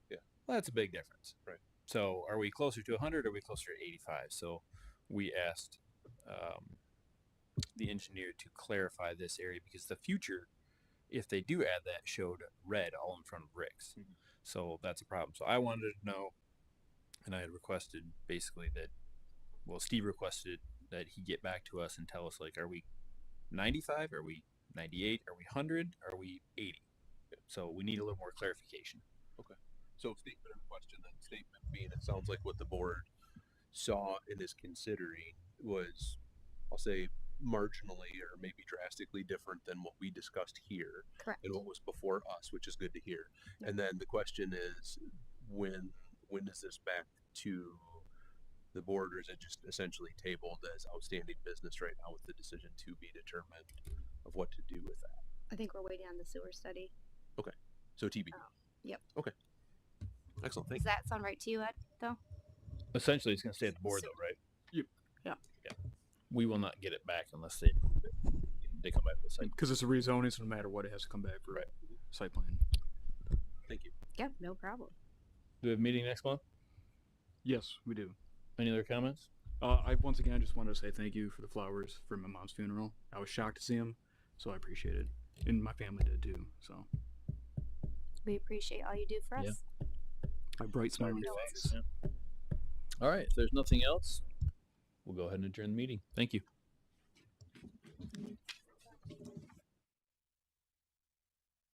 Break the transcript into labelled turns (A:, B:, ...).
A: Well, that's a big difference. Right. So are we closer to 100 or are we closer to 85? So we asked um, the engineer to clarify this area because the future, if they do add that, showed red all in front of bricks.
B: Mhm.
A: So that's a problem. So I wanted to know, and I had requested basically that, well, Steve requested that he get back to us and tell us, like, are we 95? Are we 98? Are we 100? Are we 80? So we need a little more clarification.
B: So statement of question then, statement being, it sounds like what the board saw and is considering was, I'll say marginally or maybe drastically different than what we discussed here
C: Correct.
B: and what was before us, which is good to hear.
C: Yeah.
B: And then the question is, when, when is this back to the board or is it just essentially tabled as outstanding business right now with the decision to be determined of what to do with that?
C: I think we're waiting on the sewer study.
B: So TBD.
C: Oh, yep.
B: Okay. Excellent, thank
C: Does that sound right to you, Ed? Though
A: Essentially, it's going to stay at the board,
C: So-
A: though, right?
D: Yep.
C: Yeah.
A: Yeah. We will not get it back unless they they come back with a site.
D: Because it's a rezoning, so no matter what, it has to come back for
A: Right.
D: site plan.
C: yeah, no problem.
A: Do we have a meeting next month?
D: Yes, we do.
A: Any other comments?
D: Uh, I once again I just wanted to say thank you for the flowers for my mom's funeral. I was shocked to see them, so I appreciate it, and my family did too. So
C: We appreciate all you do for us.
A: Yeah.
D: my bright smile.
C: No.
A: All right. If there's nothing else, we'll go ahead and adjourn the meeting. Thank you.